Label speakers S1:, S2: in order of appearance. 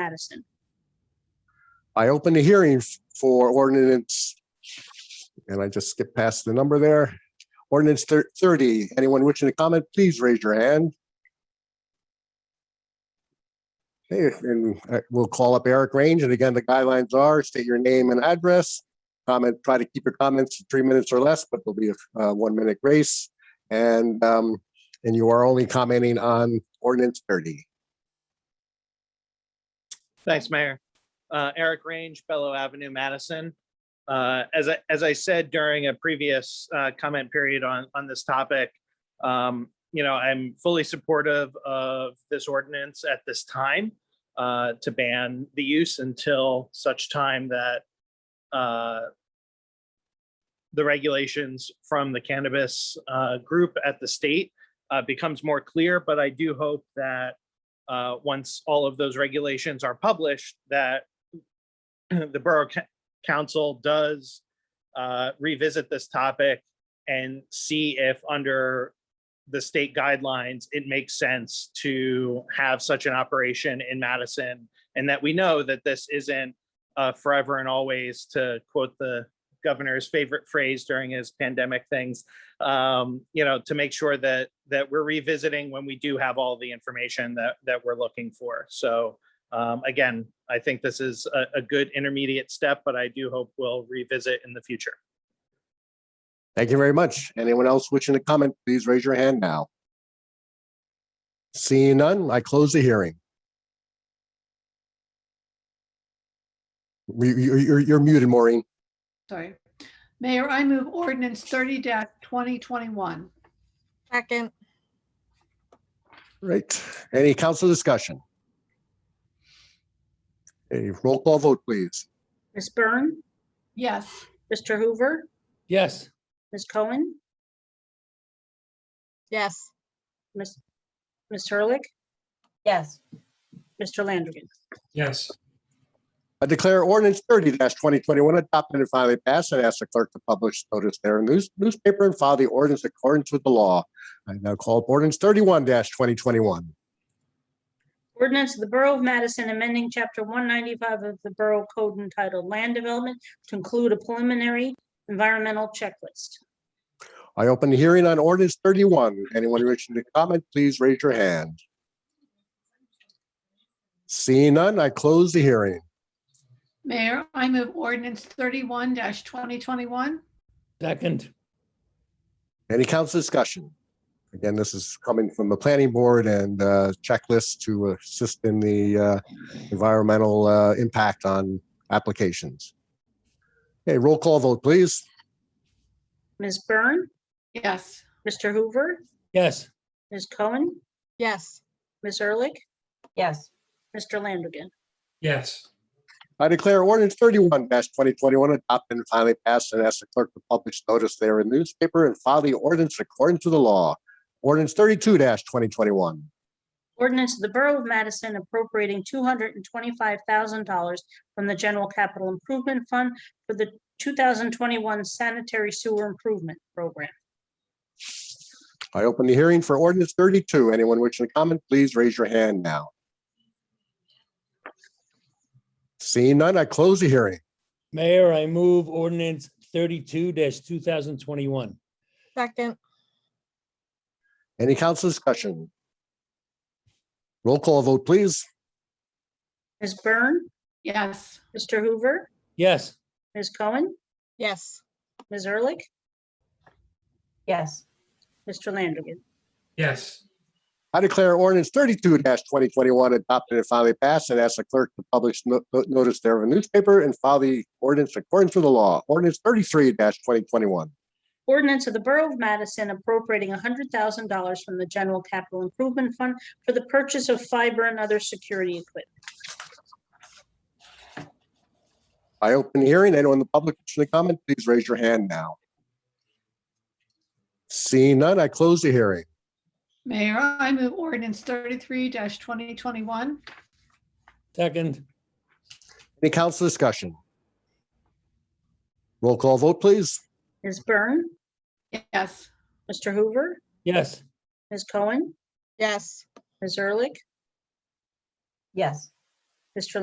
S1: Madison.
S2: I opened the hearing f- for ordinance, and I just skipped past the number there. Ordinance thir- thirty, anyone wishing to comment, please raise your hand. Okay, and uh, we'll call up Eric Range, and again, the guidelines are state your name and address. Comment, try to keep your comments to three minutes or less, but there'll be a uh, one-minute grace. And, um, and you are only commenting on ordinance thirty.
S3: Thanks, Mayor. Uh, Eric Range, Bellow Avenue, Madison. Uh, As I, as I said during a previous uh, comment period on, on this topic, um, you know, I'm fully supportive of this ordinance at this time uh, to ban the use until such time that uh, the regulations from the cannabis uh, group at the state uh, becomes more clear, but I do hope that uh, once all of those regulations are published, that the Borough Ca- Council does uh, revisit this topic and see if under the state guidelines, it makes sense to have such an operation in Madison. And that we know that this isn't uh, forever and always, to quote the governor's favorite phrase during his pandemic things, um, you know, to make sure that, that we're revisiting when we do have all the information that, that we're looking for. So, um, again, I think this is a, a good intermediate step, but I do hope we'll revisit in the future.
S2: Thank you very much. Anyone else wishing to comment, please raise your hand now. Seeing none, I close the hearing. You- you- You're, you're muted, Maureen.
S4: Sorry. Mayor, I move ordinance thirty twenty twenty-one.
S5: Second,
S2: Right. Any council discussion? A roll call vote, please.
S1: Ms. Byrne,
S4: Yes,
S1: Mr. Hoover,
S6: Yes,
S1: Ms. Cohen,
S5: yes,
S1: Ms. Ms. Hurlick,
S7: Yes,
S1: Mr. Landrigan.
S6: yes,
S2: I declare ordinance thirty twenty twenty-one adopted and finally passed and ask the clerk to publish notice there in news- newspaper and file the ordinance in accordance with the law. I now call up ordinance thirty-one twenty twenty-one.
S1: Ordinance of the Borough of Madison amending Chapter 195 of the Borough Code entitled Land Development to include a preliminary environmental checklist.
S2: I open the hearing on ordinance thirty-one. Anyone wishing to comment, please raise your hand. Seeing none, I close the hearing.
S4: Mayor, I move ordinance thirty-one twenty twenty-one.
S6: second,
S2: Any council discussion? Again, this is coming from the planning board and uh, checklist to assist in the uh, environmental uh, impact on applications. Okay, roll call vote, please.
S1: Ms. Byrne,
S4: Yes,
S1: Mr. Hoover,
S6: yes,
S1: Ms. Cohen,
S5: yes,
S1: Ms. Ehrlich,
S7: yes,
S1: Mr. Landrigan.
S6: yes,
S2: I declare ordinance thirty-one twenty twenty-one adopted and finally passed and ask the clerk to publish notice there in newspaper and file the ordinance according to the law. Ordinance thirty-two twenty twenty-one.
S1: Ordinance of the Borough of Madison appropriating two hundred and twenty-five thousand dollars from the General Capital Improvement Fund for the two thousand twenty-one sanitary sewer improvement program.
S2: I open the hearing for ordinance thirty-two. Anyone wishing to comment, please raise your hand now. Seeing none, I close the hearing.
S6: Mayor, I move ordinance thirty-two two thousand twenty-one.
S5: second,
S2: Any council discussion? Roll call vote, please.
S1: Ms. Byrne,
S4: yes,
S1: Mr. Hoover,
S6: Yes,
S1: Ms. Cohen,
S5: yes,
S1: Ms. Ehrlich,
S7: yes,
S1: Mr. Landrigan.
S6: yes,
S2: I declare ordinance thirty-two twenty twenty-one adopted and finally passed and ask the clerk to publish no- no- notice there in the newspaper and file the ordinance according to the law. Ordinance thirty-three twenty twenty-one.
S1: Ordinance of the Borough of Madison appropriating hundred thousand dollars from the General Capital Improvement Fund for the purchase of fiber and other security equipment.
S2: I open the hearing. Anyone in the public wishing to comment, please raise your hand now. Seeing none, I close the hearing.
S4: Mayor, I move ordinance thirty-three twenty twenty-one.
S6: second,
S2: Any council discussion? Roll call vote, please.
S1: Ms. Byrne,
S4: Yes,
S1: Mr. Hoover,
S6: yes,
S1: Ms. Cohen,
S5: yes,
S1: Ms. Ehrlich,
S7: yes,
S1: Mr.